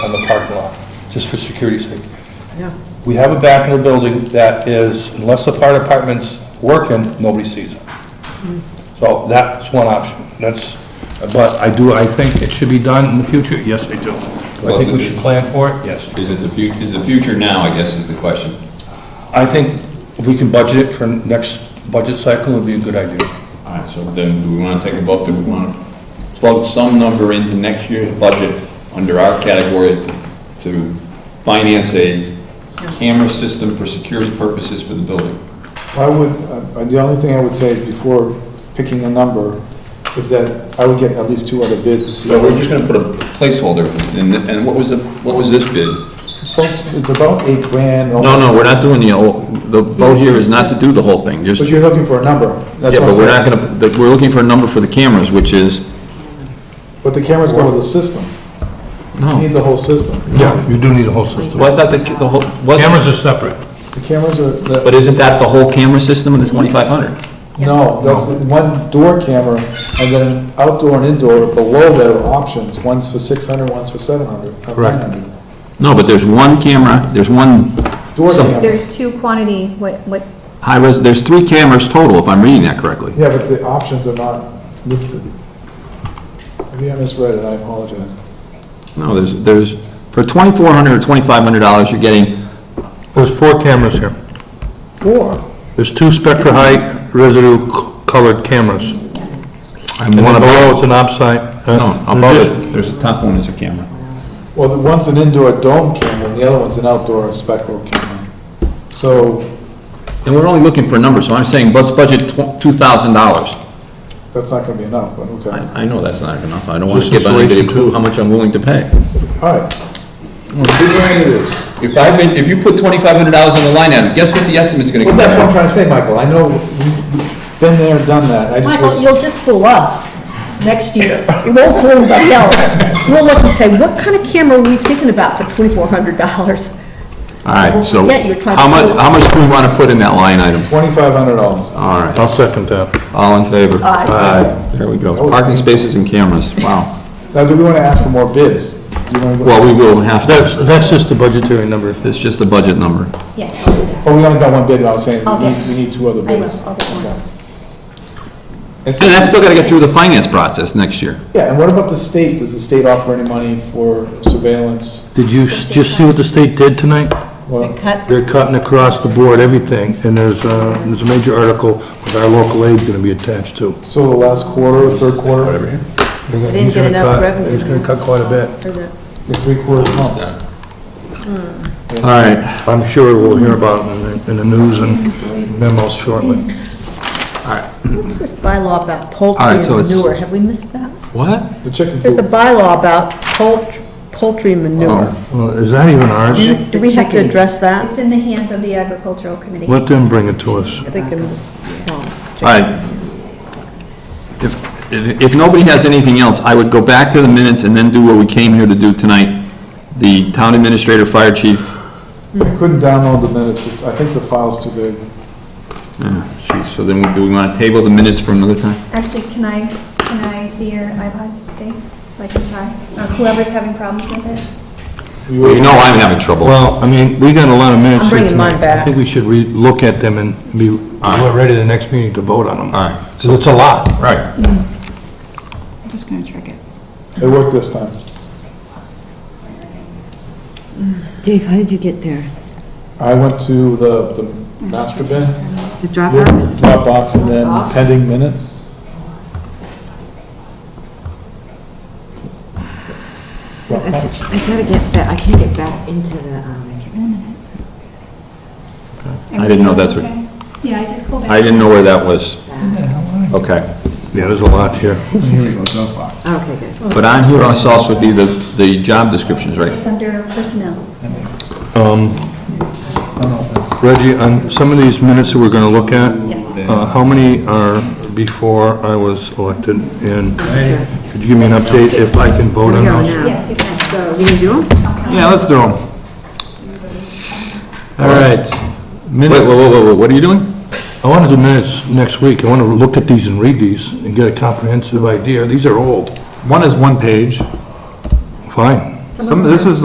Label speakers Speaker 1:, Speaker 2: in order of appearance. Speaker 1: on the parking lot, just for security's sake.
Speaker 2: Yeah.
Speaker 1: We have a back in the building that is, unless the fire department's working, nobody sees it. So that's one option, that's, but I do, I think it should be done in the future, yes, I do. Do I think we should plan for it? Yes.
Speaker 3: Is it the future, is the future now, I guess is the question.
Speaker 1: I think if we can budget it for next budget cycle, would be a good idea.
Speaker 3: All right, so then do we want to take a vote, do we want to plug some number into next year's budget under our category to- to finance a camera system for security purposes for the building?
Speaker 4: I would, uh, the only thing I would say before picking a number is that I would get at least two other bids to see.
Speaker 3: So we're just going to put a placeholder, and, and what was the, what was this bid?
Speaker 4: It's about- It's about eight grand.
Speaker 5: No, no, we're not doing the, whole- the vote here is not to do the whole thing, just,
Speaker 4: But
Speaker 5: yeah,
Speaker 4: you're looking for a number. That's what I'm
Speaker 5: but we're not
Speaker 4: saying.
Speaker 5: gonna, that we're looking for a number for the cameras, which is,
Speaker 4: But the cameras go with the system. You
Speaker 5: no.
Speaker 4: need the whole system.
Speaker 1: Yeah. You do need a whole system.
Speaker 5: Well, I thought the, the whole,
Speaker 1: Cameras
Speaker 5: wasn't,
Speaker 1: are separate.
Speaker 4: The cameras are, the-
Speaker 5: but isn't that the whole camera system of the twenty-five hundred?
Speaker 4: no, that's one door camera and then outdoor and indoor below there are options. One's for 600, one's for 700. uh,
Speaker 1: Correct.
Speaker 4: 900.
Speaker 5: No, but there's one camera, there's one,
Speaker 4: Door
Speaker 5: Some-
Speaker 4: camera.
Speaker 6: There's two quantity, what, what,
Speaker 5: high res, there's three cameras total, if I'm reading that correctly.
Speaker 4: Yeah, but the options are not listed. Maybe I misread it, I apologize.
Speaker 5: No, there's, there's, for twenty-four hundred or twenty-five hundred dollars, you're getting,
Speaker 1: There's four cameras here.
Speaker 4: Four?
Speaker 1: There's two Spectra High residue c- colored cameras.
Speaker 5: I'm
Speaker 1: And
Speaker 5: one
Speaker 1: then below, it's
Speaker 5: above,
Speaker 1: an opsite. uh,
Speaker 5: no, above
Speaker 1: there's
Speaker 5: it,
Speaker 3: There's a top one is a camera.
Speaker 4: Well, the one's an indoor dome camera, and the other one's an outdoor spectral camera. So,
Speaker 5: and we're only looking for a number, so I'm saying, let's budget two thousand dollars.
Speaker 4: that's not gonna be enough, but okay.
Speaker 5: I, I know that's not enough, I don't want to
Speaker 1: Just
Speaker 5: give anybody a
Speaker 1: insulation,
Speaker 5: clue
Speaker 1: too.
Speaker 5: how much I'm willing to pay.
Speaker 4: All right. Two grand it is.
Speaker 3: If I've been, if you put twenty-five hundred dollars on the line item, guess what the estimate's going to come
Speaker 4: Well, that's what I'm
Speaker 3: out?
Speaker 4: trying to say, Michael, I know, we've been there, done that, I just
Speaker 2: Michael,
Speaker 4: was,
Speaker 2: you'll just fool us next year. You won't fool anybody else. We'll look and say, what kind of camera were you thinking about for twenty-four hundred dollars?
Speaker 5: All right, so,
Speaker 2: Yeah, you're trying
Speaker 5: how
Speaker 2: to-
Speaker 5: much, how much do we want to put in that line item?
Speaker 4: twenty-five hundred dollars.
Speaker 5: All right,
Speaker 1: I'll second that.
Speaker 5: all in favor?
Speaker 2: Aye.
Speaker 5: There we go, parking spaces and cameras, wow.
Speaker 4: Now, do we wanna ask for more bids? Do you wanna go-
Speaker 5: Well, we will have
Speaker 1: That's,
Speaker 5: to,
Speaker 1: that's just the budgetary number.
Speaker 5: it's just the budget number.
Speaker 6: yeah,
Speaker 4: Oh, we only got one bid, and I was saying,
Speaker 6: I'll
Speaker 4: we
Speaker 6: get-
Speaker 4: need, we need two other
Speaker 6: I will,
Speaker 4: bids.
Speaker 6: I'll get one.
Speaker 4: Okay. And so-
Speaker 5: And that's still got to get through the finance process next year.
Speaker 4: Yeah, and what about the state, does the state offer any money for surveillance?
Speaker 1: Did you s- just see what the state did tonight?
Speaker 4: Well,
Speaker 1: They're cutting across the board everything, and there's a, there's a major article with our local aid gonna be attached to.
Speaker 4: so the last quarter, third quarter,
Speaker 1: They
Speaker 2: didn't get enough revenue.
Speaker 1: He's gonna cut quite a bit.
Speaker 4: the three quarters months?
Speaker 5: All right,
Speaker 1: I'm sure we'll hear about it in the, in the news and memos shortly.
Speaker 2: What's this bylaw about poultry
Speaker 5: All right,
Speaker 2: and
Speaker 5: so it's-
Speaker 2: manure? Have we missed that?
Speaker 5: what?
Speaker 4: The chicken
Speaker 2: There's a
Speaker 4: coop,
Speaker 2: bylaw about poult- poultry manure.
Speaker 5: Oh,
Speaker 1: Well, is that even
Speaker 2: Do
Speaker 1: ours?
Speaker 2: do we have to address that?
Speaker 6: it's in the hands of the agricultural committee.
Speaker 1: Let them bring it to us.
Speaker 2: I think it was, oh,
Speaker 5: All right. If, if if nobody has anything else, I would go back to the minutes and then do what we came here to do tonight. The town administrator, fire chief,
Speaker 4: I couldn't download the minutes, It's- I think the file's too big.
Speaker 5: uh, Geez, So then, we- do we want to table the minutes for another time?
Speaker 6: Actually, can I, can I see your iPod, Dave, so I can try? Or whoever's having problems with it?
Speaker 5: Well, you know I'm having trouble.
Speaker 1: Well, I mean, we got a lot of minutes.
Speaker 2: I'm
Speaker 1: here
Speaker 2: bringing mine
Speaker 1: tonight. I
Speaker 2: back.
Speaker 1: think we should re-look at them and be, we're ready the next meeting to vote on them.
Speaker 5: All right.
Speaker 1: So it's a lot.
Speaker 5: Right.
Speaker 6: I'm just gonna check it.
Speaker 4: It worked this time.
Speaker 7: Dave, how did you get there?
Speaker 4: I went to the, the master bin,
Speaker 7: The Dropbox?
Speaker 4: Dropbox, and then pending minutes.
Speaker 7: I gotta get back, I can't get back into the, um, I can't-
Speaker 5: I didn't know that's what-
Speaker 6: Yeah, I just called back.
Speaker 5: I didn't know where that was. Okay.
Speaker 1: Yeah, there's a lot here.
Speaker 4: Here we go, Dropbox.
Speaker 7: okay, good.
Speaker 5: But on here must also be the, the job descriptions, right?
Speaker 6: It's under personnel.
Speaker 1: Um, Reggie, on some of these minutes that we're going to look at, uh, how many are before I was elected? And could you give me an update if I can vote on
Speaker 7: Go
Speaker 1: those?
Speaker 7: now.
Speaker 6: Yes, you can.
Speaker 7: So, you can do them?
Speaker 5: Yeah, let's do them.
Speaker 4: All right,
Speaker 5: Wait, whoa, whoa,
Speaker 4: minutes.
Speaker 5: whoa, whoa, what are you doing?
Speaker 1: I want to do minutes next week. I want to look at these and read these and get a comprehensive idea. These are old.
Speaker 4: One is one page.
Speaker 1: Fine.
Speaker 6: Some of them
Speaker 4: is